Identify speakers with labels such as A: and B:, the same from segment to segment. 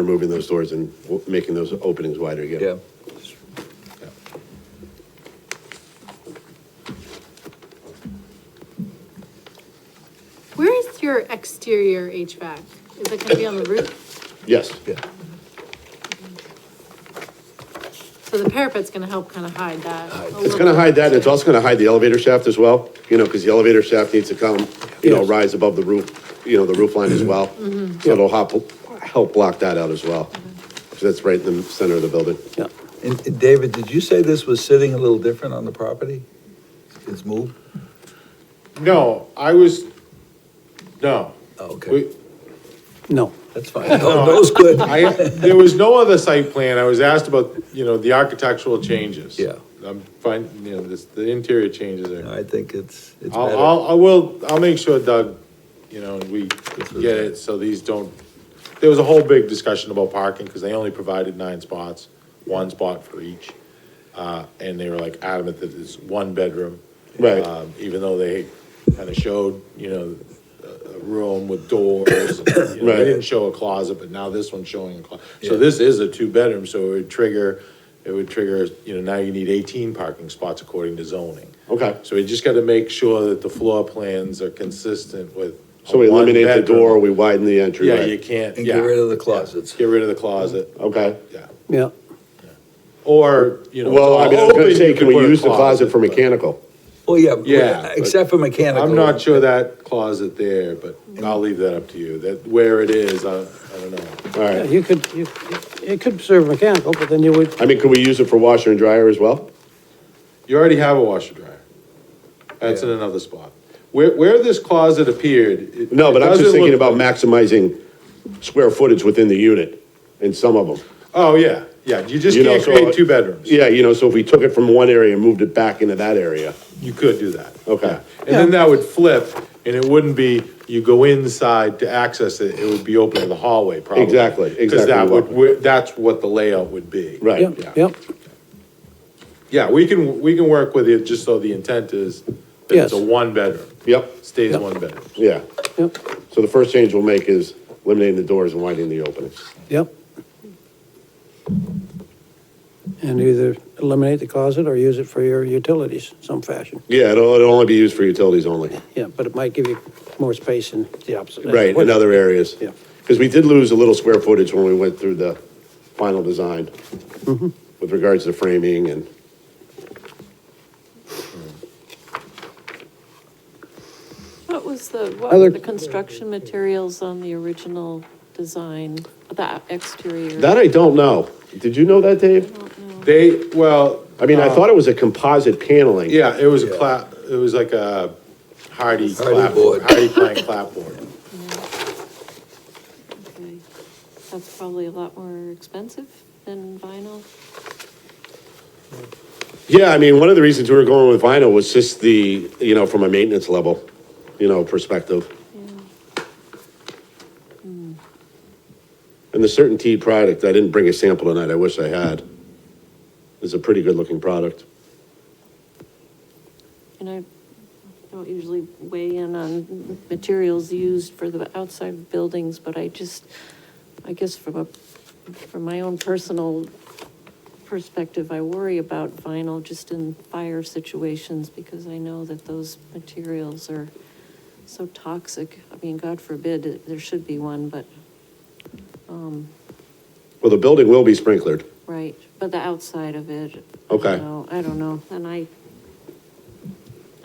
A: removing those doors and w- making those openings wider again.
B: Yeah.
C: Where is your exterior HVAC? Is it gonna be on the roof?
A: Yes,
B: Yeah.
C: So the parapet's gonna help kind of hide that. a
A: it's
C: little
A: gonna
C: bit.
A: hide that, and it's also gonna hide the elevator shaft as well, you know, because the elevator shaft needs to come, you know,
D: Yes.
A: rise above the roof, you know, the roof line as well. So it'll help, help block that out as well, because that's right in the center of the building.
D: Yeah,
B: And and David, did you say this was sitting a little different on the property? It's moved?
E: No, I was, no.
B: Oh, okay,
E: We-
D: no.
B: that's fine. No, that was good.
E: I, there was no other site plan. I was asked about, you know, the architectural changes.
B: Yeah.
E: I'm fine, you know, this, the interior changes are.
B: I think it's, it's
E: I'll,
B: better.
E: I'll, I will, I'll make sure Doug, you know, we get it, so these don't, there was a whole big discussion about parking, because they only provided nine spots, one spot for each. Uh, and they were like adamant that it's one bedroom.
A: Right.
E: Um, Even though they kind of showed, you know, a, a room with doors, you know,
A: Right.
E: they didn't show a closet, but now this one's showing a closet. So this is a two-bedroom, so it would trigger, it would trigger, you know, now you need eighteen parking spots according to zoning.
A: Okay,
E: So we just gotta make sure that the floor plans are consistent with. a
A: so we eliminate the
E: one-bedroom.
A: door, we widen the entryway.
E: Yeah, you can't,
B: And get rid
E: yeah,
B: of the closets.
E: get rid of the closet,
A: Okay,
E: yeah,
D: Yeah,
E: or, you know.
A: well, I mean, I was gonna
E: open,
A: say,
E: you
A: can we
E: put a
A: use the closet for
E: but
A: mechanical?
B: Well, yeah, but-
E: Yeah, but
B: except for mechanical.
E: I'm not sure that closet there, but I'll leave that up to you, that, where it is, I, I don't know.
A: All
D: Yeah,
A: right,
D: you could, you, it could serve mechanical, but then you would,
A: I mean, could we use it for washer and dryer as well?
E: You already have a washer dryer, that's in
B: Yeah.
E: another spot. Where, where this closet appeared. it-
A: No, but
E: it
A: I was just
E: doesn't
A: thinking
E: look-
A: about maximizing square footage within the unit in some of them.
E: Oh, yeah, yeah, you just
A: You know,
E: can't
A: so-
E: create two bedrooms,
A: Yeah, you know, so if we took it from one area and moved it back into that area.
E: you could do that.
A: Okay.
E: And then that would flip, and it wouldn't be, you go inside to access it, it would be open to the hallway, probably.
A: Exactly,
E: Because
A: exactly
E: that would,
A: what-
E: where- that's what the layout would be.
A: Right.
D: yeah,
E: Yeah.
D: yep,
E: Yeah, we can, we can work with it, just so the intent is that
D: Yes.
E: it's a one-bedroom,
A: Yep.
E: stays
D: Yep.
E: one bedroom.
A: Yeah.
D: yep,
A: So the first change we'll make is eliminating the doors and widening the openings.
D: yep. And either eliminate the closet or use it for your utilities some fashion.
A: Yeah, it'll, it'll only be used for utilities only.
D: Yeah, but it might give you more space in the opposite.
A: Right, in other areas.
D: Yeah.
A: Because we did lose a little square footage when we went through the final design
D: Mm-hmm.
A: with regards to framing and,
F: What was the, what
D: Other-
F: were the construction materials on the original design, the exterior?
A: that I don't know. Did you know that, Dave?
E: They, well,
A: I mean, I
D: Uh,
A: thought it was a composite paneling.
E: yeah, it was a
B: Yeah.
E: clap, it was like a hardy
B: Hardy
E: clapboard,
B: board.
E: hardy plank clapboard.
F: Okay. That's probably a lot more expensive than vinyl.
A: Yeah, I mean, one of the reasons we were going with vinyl was just the, you know, from a maintenance level, you know, perspective. And the Certainty product, I didn't bring a sample tonight, I wish I had. It's a pretty good-looking product.
F: And I don't usually weigh in on materials used for the outside buildings, but I just, I guess from a, from my own personal perspective, I worry about vinyl just in fire situations because I know that those materials are so toxic. I mean, God forbid, there should be one, but,
A: Well, the building will be sprinklered.
F: right, but the outside of it.
A: Okay.
F: You know, I don't know, and I,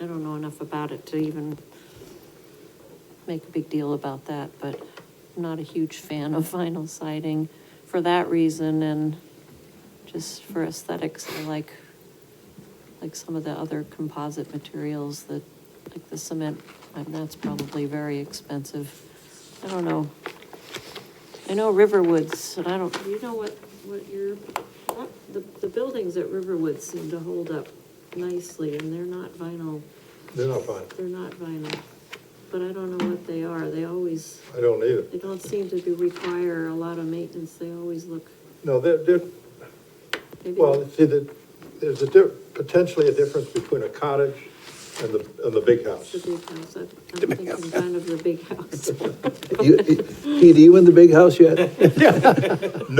F: I don't know enough about it to even make a big deal about that, but I'm not a huge fan of vinyl siding for that reason and just for aesthetics, I like, like some of the other composite materials that, like the cement, and that's probably very expensive. I don't know. I know Riverwoods, and I don't, you know what, what your, what- the, the buildings at Riverwoods seem to hold up nicely and they're not vinyl,
G: They're not fine.
F: they're not vinyl. But I don't know what they are, they always,
G: I don't either.
F: they don't seem to be, require a lot of maintenance, they always look,
G: No, they're, they're,
F: maybe.
G: well, see, the, there's a di, potentially a difference between a cottage
E: and the, and the big house.
F: The big house, I'm thinking kind of the big house.
D: You- Pete, are you in the big house yet?